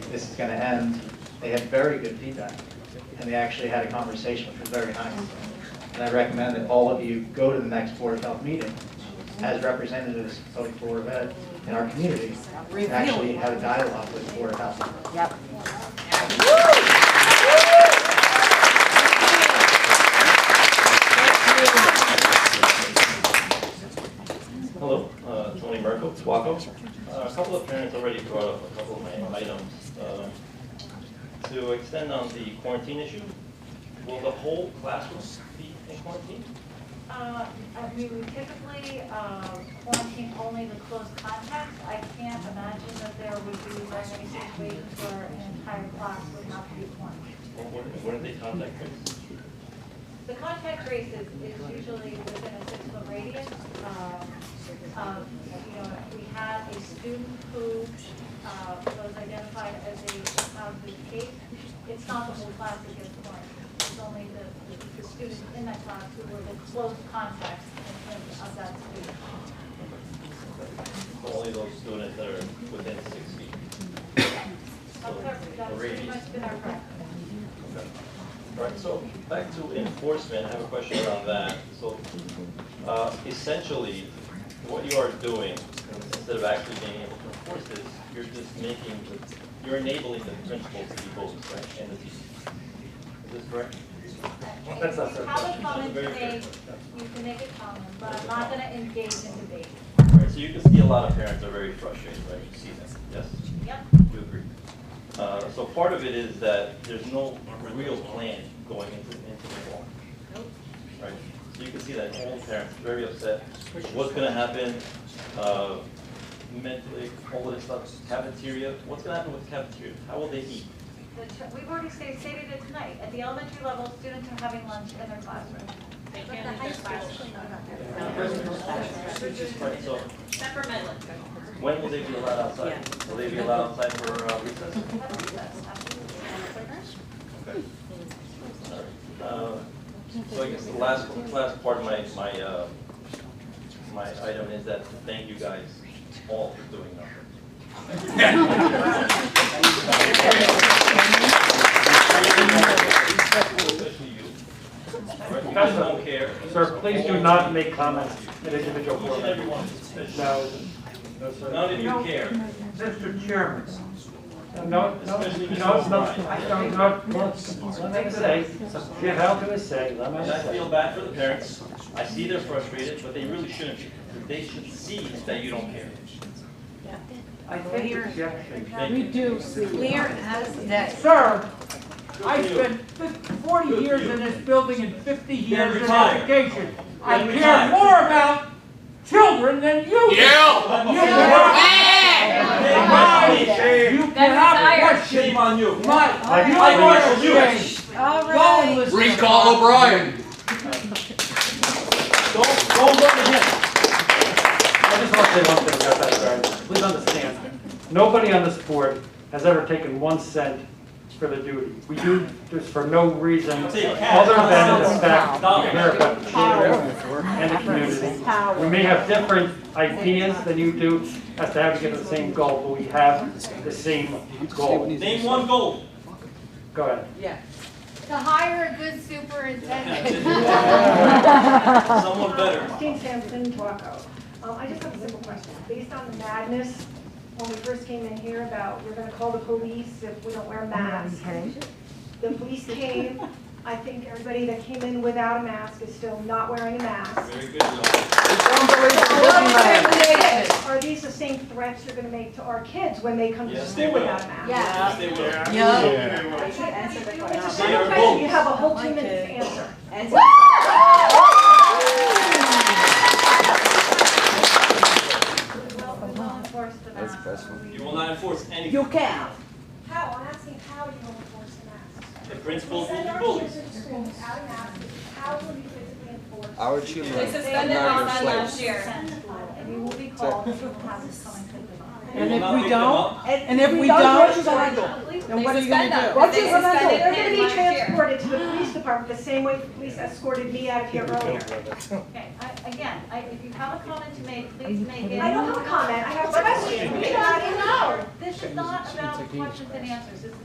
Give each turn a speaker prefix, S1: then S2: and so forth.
S1: this is gonna end, they had very good feedback. And they actually had a conversation, which was very nice. And I recommend that all of you go to the next Board of Health meeting as representatives of the Board of Ed in our community, and actually have a dialogue with the Board of Health.
S2: Yep.
S3: Hello, uh, Tony Merkel, Twaco. Uh, A couple of parents already brought up a couple of my items. Um, To extend on the quarantine issue, will the whole classroom be in quarantine?
S4: Uh, I mean, we typically uh, quarantine only the close contacts. I can't imagine that there would be like any situation where an entire class would not be quarantined.
S3: Or where- where did they contact us?
S4: The contact trace is, is usually within a six-foot radius. Um, um, You know, if we had a student who uh, was identified as a positive case, it's not the whole class that gets quarantined. It's only the, the- the students in that class who were the close contacts in terms of that student.
S3: Only those students that are within six feet.
S4: Of course, that's pretty much been our practice.
S3: All right, so back to enforcement, I have a question around that. So uh, essentially, what you are doing, instead of actually being able to enforce this, you're just making, the- you're enabling the principals to be bullies, right, and the teachers. Is this correct?
S4: If you have a comment to make, you can make a comment, but I'm not gonna engage in debate.
S3: All right, so you can see a lot of parents are very frustrated, right? You see that, yes?
S4: Yep.
S3: You agree. Uh, So part of it is that there's no real plan going into, into the fall. Right, so you can see that all parents are very upset, what's gonna happen, uh, mentally, all of this stuff, cafeteria, what's gonna happen with cafeteria? How will they eat?
S4: The ch- We've already stated stated it tonight, at the elementary level, students are having lunch in their classroom.
S5: They can't leave their classroom.
S3: Right, so
S5: Except for Midland.
S3: when will they be allowed outside? Will they be allowed outside for uh, recess?
S4: That's recess, absolutely.
S3: Uh, So I guess the last, last part of my, my, uh, my item is that to thank you guys all for doing nothing. Especially you. Right? You don't care.
S6: Sir, please do not make comments in individual
S3: Each and
S6: format.
S3: every one.
S6: No, no, sir.
S3: None of you care.
S6: Mr. Chairman. No, no, no,
S3: Especially Mr.
S6: no, no,
S3: O'Brien.
S6: I don't, not, let me say, you have to say, let me
S3: And I feel
S6: say.
S3: bad for the parents. I see they're frustrated, but they really shouldn't be. They should see that you don't care.
S6: I take objection.
S3: Thank you.
S7: do see.
S2: Clear as day.
S7: Sir, I
S3: Good for you.
S7: spent fif- forty
S3: Good for
S7: years
S3: you.
S7: in this building and fifty years in
S3: retire.
S7: education. I
S3: Then
S7: care
S3: retire.
S7: more about children than you do. You cannot,
S3: Shame on me.
S7: you cannot question
S3: Shame on you.
S7: my,
S6: I-
S7: my
S3: I- I-
S7: orders.
S2: All
S7: Don't
S2: right.
S7: listen.
S8: Recall O'Brien.
S3: Don't, don't look at him.
S6: I just want to say one thing about that, sir. Please understand, nobody on this board has ever taken one cent for the duty. We do this for no reason other
S3: Take
S6: than the fact
S3: Dollars.
S6: of America and the community. We may have different ideas than you do as to how to get to the same goal, but we have the same goal.
S3: Name one goal.
S6: Go ahead.
S9: To hire a good superintendent.
S3: Someone better.
S10: Christine Uh, Sampson, Waco. Um, I just have a simple question. Based on the madness, when we first came in here about, we're gonna call the police if we don't wear masks. The police came, I think everybody that came in without a mask is still not wearing a mask.
S3: Very good. Laura.
S10: Are these the same threats you're gonna make to our kids when they come to
S3: Yes, they
S10: school
S3: will.
S10: without a mask?
S3: Yes, they will.
S2: Yep.
S10: It's a
S3: They are
S10: simple question, you
S3: both.
S10: have a whole two minutes to answer.
S4: Well, we will enforce the mask. We-
S3: You will not enforce anything.
S7: You can.
S10: How, I'm asking how you will enforce the mask.
S3: The principals will be bullies.
S10: to school without a mask, how will you physically enforce?
S8: Our
S5: They
S8: children are
S5: suspended
S8: not
S5: our
S8: your
S5: son
S8: slaves.
S5: last year.
S4: And we will be called, and we will have this coming to the.
S7: And
S3: will
S7: if
S3: not
S7: we
S3: pick them
S7: don't,
S3: up.
S7: and if we don't, then what
S5: They
S7: are you gonna
S5: suspend
S7: do?
S5: them.
S10: What
S5: They
S10: you gonna do?
S5: suspended
S10: They're gonna
S5: him
S10: be
S5: last year.
S10: transported to the police department the same way the police escorted me out of here earlier.
S4: Okay, I,
S5: Again, I, if you have a comment to make, please make it.
S10: I don't have a comment, I have a question.
S5: We
S10: We
S5: should
S10: got
S5: not
S10: it
S5: ignore. This is not about questions and answers, this is